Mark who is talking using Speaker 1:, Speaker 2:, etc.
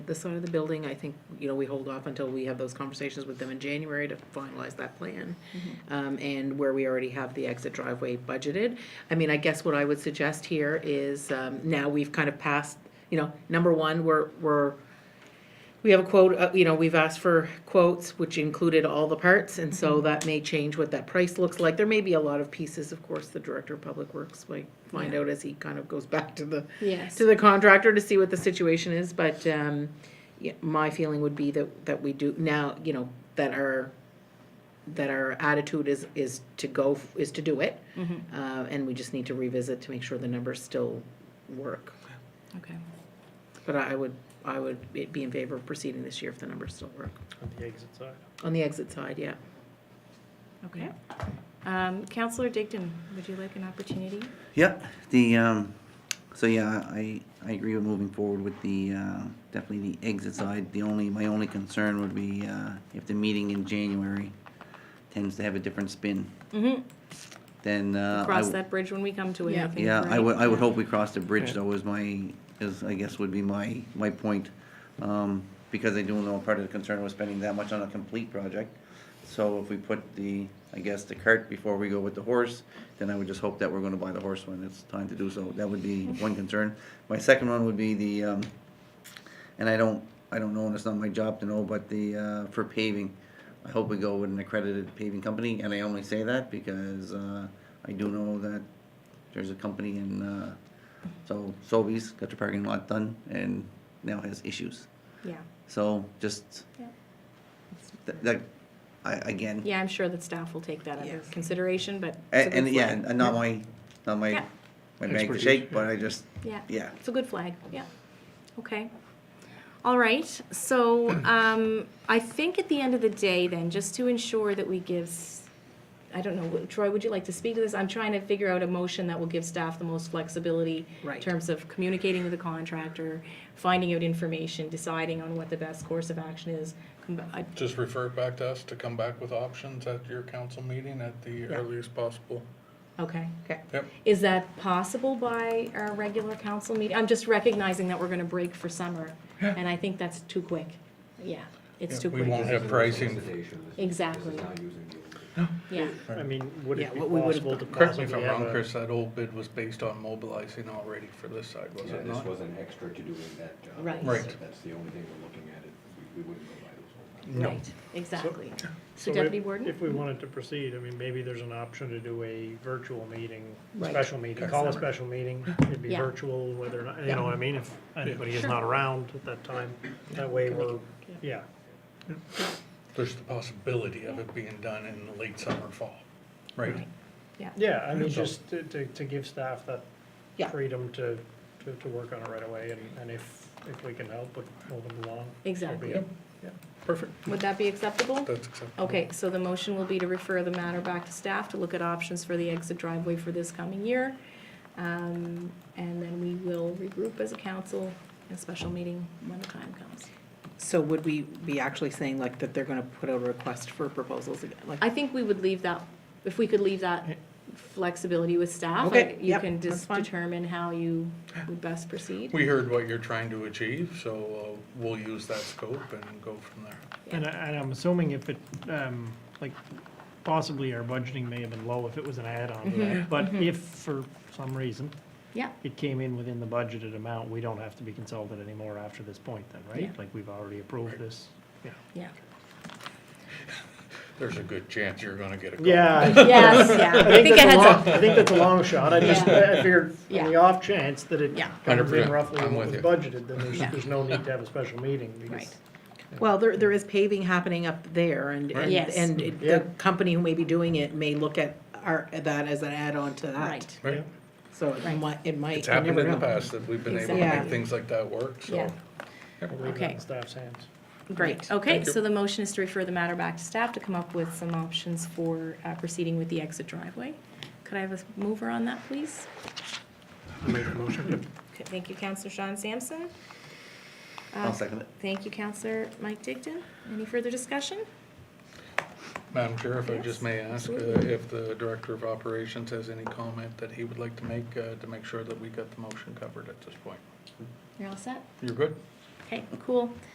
Speaker 1: the side of the building, I think, you know, we hold off until we have those conversations with them in January to finalize that plan. Um, and where we already have the exit driveway budgeted. I mean, I guess what I would suggest here is, um, now we've kind of passed, you know, number one, we're, we're, we have a quote, uh, you know, we've asked for quotes, which included all the parts, and so that may change what that price looks like. There may be a lot of pieces, of course, the director of public works might find out as he kind of goes back to the,
Speaker 2: Yes.
Speaker 1: to the contractor to see what the situation is, but, um, yeah, my feeling would be that, that we do, now, you know, that our, that our attitude is, is to go, f- is to do it. Uh, and we just need to revisit to make sure the numbers still work.
Speaker 2: Okay.
Speaker 1: But I I would, I would be- be in favor of proceeding this year if the numbers still work.
Speaker 3: on the exit side.
Speaker 1: On the exit side, yeah.
Speaker 2: Okay. Um, Counselor Digdon, would you like an opportunity?
Speaker 4: Yep, the, um, so yeah, I, I agree with moving forward with the, uh, definitely the exit side. The only, my only concern would be, uh, if the meeting in January tends to have a different spin,
Speaker 2: Mm-hmm.
Speaker 4: then, uh. I
Speaker 2: Cross
Speaker 4: w-
Speaker 2: that bridge when we come to it, I
Speaker 1: Yeah.
Speaker 2: think,
Speaker 4: Yeah, I
Speaker 2: right?
Speaker 4: would, I would hope we cross the
Speaker 3: Yeah.
Speaker 4: bridge though is my, is, I guess would be my, my point. Um, because I do know part of the concern was spending that much on a complete project. So if we put the, I guess, the cart before we go with the horse, then I would just hope that we're gonna buy the horse when it's time to do so. That would be one concern. My second one would be the, um, and I don't, I don't know, and it's not my job to know, but the, uh, for paving, I hope we go with an accredited paving company, and I only say that because, uh, I do know that there's a company in, uh, so Sobeys got their parking lot done and now has issues.
Speaker 2: Yeah.
Speaker 4: So just,
Speaker 2: Yeah.
Speaker 4: that, that, I, again,
Speaker 2: Yeah, I'm sure that staff will take that under
Speaker 1: Yes.
Speaker 2: consideration, but. it's a
Speaker 4: and,
Speaker 2: good
Speaker 4: and yeah,
Speaker 2: flag.
Speaker 4: and not my, not my,
Speaker 2: Yeah.
Speaker 4: my bag to
Speaker 3: Expertise,
Speaker 4: shake, but I just,
Speaker 2: Yeah.
Speaker 4: yeah.
Speaker 2: It's a good flag, yeah. Okay. All right, so um, I think at the end of the day then, just to ensure that we give, s- I don't know, Troy, would you like to speak to this? I'm trying to figure out a motion that will give staff the most flexibility in
Speaker 1: Right.
Speaker 2: terms of communicating with the contractor, finding out information, deciding on what the best course of action is. Com- I-
Speaker 5: Just refer it back to us to come back with options at your council meeting at the earliest possible.
Speaker 2: Okay.
Speaker 1: Okay.
Speaker 5: Yep.
Speaker 2: Is that possible by our regular council meeting? I'm just recognizing that we're gonna break for summer, and I think that's too quick. Yeah, it's too
Speaker 5: We
Speaker 2: quick.
Speaker 5: won't have pricing.
Speaker 2: Exactly. Yeah,
Speaker 3: I mean, would
Speaker 1: Yeah,
Speaker 3: it be
Speaker 1: what we would-
Speaker 3: possible to
Speaker 5: Correct me if
Speaker 3: possibly
Speaker 5: I'm
Speaker 3: have
Speaker 5: wrong,
Speaker 3: a?
Speaker 5: Chris, that old bid was based on mobilizing already for this side, was
Speaker 6: Yeah,
Speaker 5: it
Speaker 6: this
Speaker 5: not?
Speaker 6: was an extra to doing that job.
Speaker 2: Right.
Speaker 5: Right.
Speaker 6: That's the only thing we're looking at, it, we- we wouldn't go by those old.
Speaker 2: right, exactly. So
Speaker 3: if-
Speaker 2: Deputy Warden?
Speaker 3: If we wanted to proceed, I mean, maybe there's an option to do a virtual meeting,
Speaker 2: Right.
Speaker 3: special meeting,
Speaker 5: Okay.
Speaker 3: call a special meeting. It'd be
Speaker 2: Yeah.
Speaker 3: virtual, whether or not, you
Speaker 2: Yeah.
Speaker 3: know what I mean, if anybody is
Speaker 2: Sure.
Speaker 3: not around at that time, that way we're,
Speaker 2: Yeah.
Speaker 3: yeah.
Speaker 5: There's the possibility of it being done in the late summer, fall, right?
Speaker 2: Yeah,
Speaker 3: Yeah, I mean,
Speaker 5: So-
Speaker 3: just to, to, to give staff that
Speaker 1: Yeah.
Speaker 3: freedom to, to, to work on it right away, and, and if, if we can help, we pull them along. so be
Speaker 2: Exactly.
Speaker 3: it.
Speaker 5: Perfect,
Speaker 2: would that be acceptable?
Speaker 5: that's acceptable.
Speaker 2: Okay, so the motion will be to refer the matter back to staff to look at options for the exit driveway for this coming year. Um, And then we will regroup as a council in a special meeting when the time comes.
Speaker 1: So would we be actually saying like that they're gonna put out a request for proposals again? Like,
Speaker 2: I think we would leave that, if we could leave that flexibility with staff.
Speaker 1: Okay,
Speaker 2: You
Speaker 1: yep,
Speaker 2: can
Speaker 1: that's
Speaker 2: just
Speaker 1: fine.
Speaker 2: determine how you would best proceed.
Speaker 5: We heard what you're trying to achieve, so uh, we'll use that scope and go from there.
Speaker 3: And, I- and I'm assuming if it, um, like, possibly our budgeting may have been low if it was an add-on to
Speaker 2: Mm-hmm,
Speaker 3: that, but if for some reason
Speaker 2: Yeah,
Speaker 3: it came in within the budgeted amount, we don't have to be consulted anymore after this point then,
Speaker 2: Yeah.
Speaker 3: right? Like, we've already approved this, yeah.
Speaker 2: yeah.
Speaker 5: There's a good chance you're gonna get a call.
Speaker 3: Yeah.
Speaker 2: Yes, yeah. I think
Speaker 3: that's
Speaker 2: I
Speaker 3: a
Speaker 2: had
Speaker 3: long,
Speaker 2: some,
Speaker 3: I think that's a long shot, I just,
Speaker 2: Yeah.
Speaker 3: I figured
Speaker 2: Yeah.
Speaker 3: on the off chance that it
Speaker 2: Yeah.
Speaker 3: comes in
Speaker 5: 100%.
Speaker 3: roughly
Speaker 5: I'm
Speaker 3: what was
Speaker 5: with
Speaker 3: budgeted, then there's,
Speaker 2: Yeah.
Speaker 3: there's no need to have a special meeting, because
Speaker 2: right,
Speaker 1: Well, there, there is paving happening up there and,
Speaker 5: Right. Mm-hmm.
Speaker 1: and,
Speaker 2: Yes.
Speaker 1: and it-
Speaker 3: Yeah.
Speaker 1: the company who may be doing it may look at our, that as an add-on to that.
Speaker 2: right.
Speaker 5: Right?
Speaker 1: So it
Speaker 2: Right.
Speaker 1: might, it might.
Speaker 5: It's
Speaker 1: you
Speaker 5: happened
Speaker 1: never
Speaker 5: in the
Speaker 1: know.
Speaker 5: past that we've been able to
Speaker 1: Exactly.
Speaker 5: make things like that work, so.
Speaker 2: Yeah.
Speaker 3: we'll leave that
Speaker 2: Okay.
Speaker 3: in staff's hands.
Speaker 2: Great,
Speaker 1: Right.
Speaker 2: okay,
Speaker 5: Thank you.
Speaker 2: so the motion is to refer the matter back to staff to come up with some options for uh, proceeding with the exit driveway. Could I have a mover on that, please? Okay, Thank you, Counselor Sean Sampson. Uh,
Speaker 4: I'll second it.
Speaker 2: Thank you, Counselor Mike Digdon. Any further discussion?
Speaker 5: Madam Chair, if I
Speaker 2: Yes,
Speaker 5: just may ask uh,
Speaker 2: absolutely.
Speaker 5: if the Director of Operations has any comment that he would like to make, uh, to make sure that we got the motion covered at this point.
Speaker 2: You're all set?
Speaker 5: You're good?
Speaker 2: Okay, cool.